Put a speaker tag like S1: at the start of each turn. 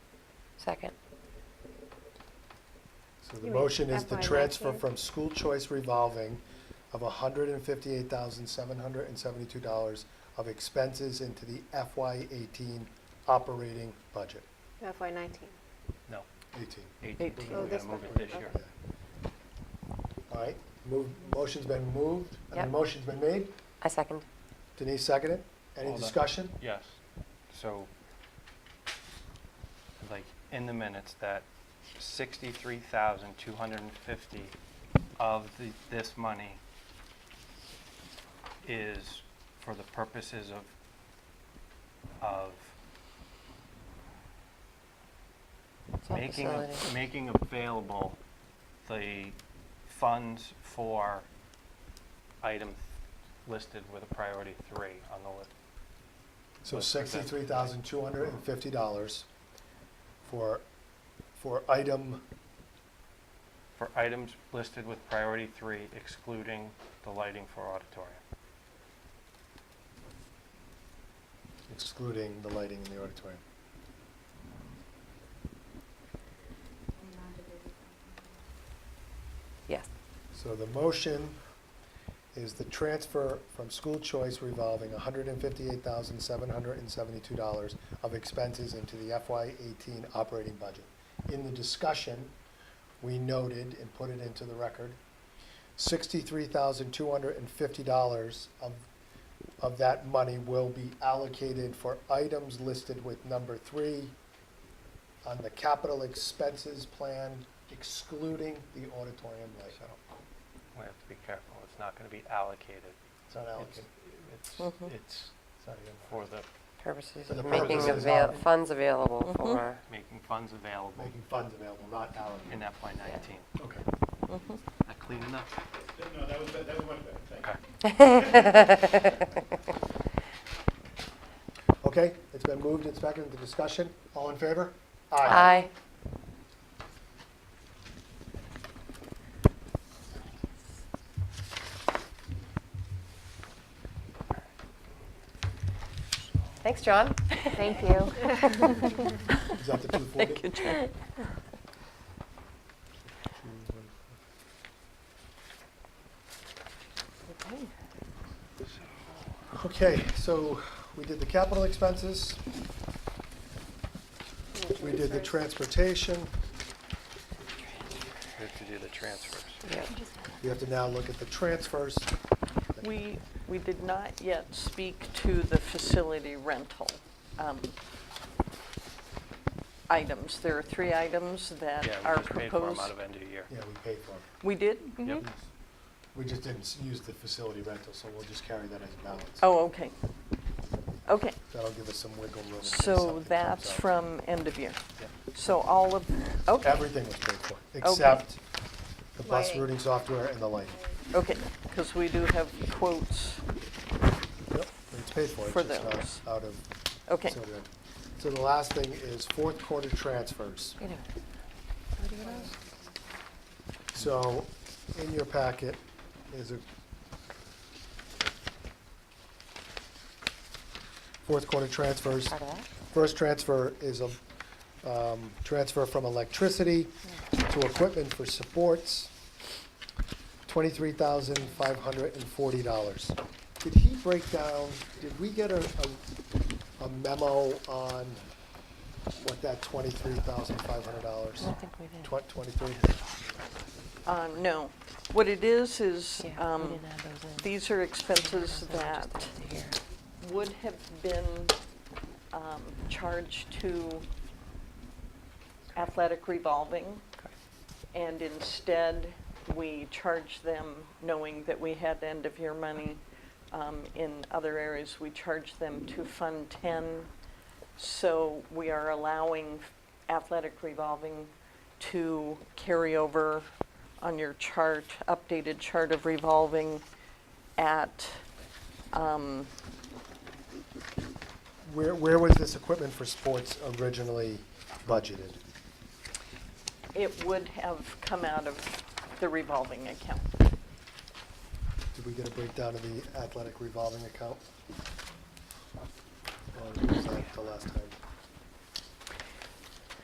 S1: Second.
S2: So the
S3: You mean
S2: motion is the
S3: FY
S2: transfer
S3: last year?
S2: from school choice revolving of hundred and fifty-eight thousand, seven hundred and seventy-two dollars of expenses into the FY eighteen operating budget,
S3: FY nineteen.
S4: No,
S2: eighteen.
S4: eighteen,
S1: Eighteen.
S4: we
S3: Oh, this
S4: gotta move
S3: one.
S4: it this year.
S2: Yeah. All right, move, motion's been moved, and the
S1: Yep.
S2: motion's been made.
S1: I second.
S2: Denise seconded. Any
S4: Hold on.
S2: discussion?
S4: Yes, so, like, in the minutes, that sixty-three thousand, two hundred and fifty of the, this money is for the purposes of, of
S1: It's all
S4: making, a-
S1: facility.
S4: making available the funds for item listed with a priority three on the list.
S2: So
S4: Let's present.
S2: sixty-three thousand, two hundred and fifty dollars for, for item,
S4: for items listed with priority three excluding the lighting for auditorium.
S2: excluding the lighting in the auditorium.
S1: Yes.
S2: So the motion is the transfer from school choice revolving hundred and fifty-eight thousand, seven hundred and seventy-two dollars of expenses into the FY eighteen operating budget. In the discussion, we noted and put it into the record, sixty-three thousand, two hundred and fifty dollars of, of that money will be allocated for items listed with number three on the capital expenses plan excluding the auditorium light.
S4: So we have to be careful. It's not going to be allocated.
S2: It's not
S4: It's,
S2: allocated.
S1: Mhm.
S4: it's, it's
S2: It's not even-
S4: for the,
S1: Purposes
S2: For the
S1: of making
S2: purposes
S1: avail,
S2: of-
S1: funds available
S5: Mhm.
S3: Mm-hmm.
S1: for,
S4: making funds available
S2: Making funds available, not
S4: in
S2: allocated.
S4: FY nineteen.
S2: Okay. Mm-hmm.
S4: That clean enough?
S6: No, that was, that was much better, thank you.
S4: Okay.
S2: Okay, it's been moved, it's back into discussion. All in favor?
S1: aye. Thanks, John.
S3: Thank you.
S2: Is that the two
S1: Thank you,
S2: forty?
S1: John.
S2: Okay, so we did the capital expenses, we did the transportation.
S4: We have to do the transfers.
S1: Yeah.
S2: We have to now look at the transfers.
S5: We, we did not yet speak to the facility rental um, items. There are three items that
S4: Yeah,
S5: are
S4: we just paid for them
S5: proposed. Mm-hmm.
S4: out of end of year.
S2: Yeah, we paid for them.
S5: We did?
S4: Yep.
S2: We just didn't s- use the facility rental, so we'll just carry that as balance.
S5: Oh, okay. Okay,
S2: That'll give us some wiggle room. in case something
S5: so
S2: comes
S5: that's
S2: up.
S5: from end of year.
S4: Yep.
S5: So all of, okay,
S2: Everything was paid for, except the bus
S3: Lighting.
S2: routing software and the lighting.
S5: okay, because we do have quotes.
S2: Yep, it's paid for,
S5: For
S2: it's just
S5: those.
S2: not out of.
S5: Okay,
S2: so the- So the last thing is fourth quarter transfers.
S1: You know,
S2: So in your packet is a fourth quarter transfers.
S1: Part of that.
S2: First transfer is a um, transfer from electricity to equipment for supports, twenty-three thousand five hundred and forty dollars. Did he break down, did we get a, a- a memo on what that twenty-three thousand five hundred dollars?
S1: I don't think we did.
S2: Tw- twenty-three?
S5: uh, no. What it is, is
S1: Yeah, we
S5: um,
S1: didn't add those in.
S5: these are expenses
S1: Just
S5: that
S1: added here.
S5: would have been um, charged to athletic revolving, and instead, we charged them, knowing that we had end-of-year money um, in other areas, we charged them to Fund 10. So we are allowing athletic revolving to carry over on your chart, updated chart of revolving at, um,
S2: Where, where was this equipment for sports originally budgeted?
S5: It would have come out of the revolving account.
S2: Did we get a breakdown of the athletic revolving account? Or was that the last time?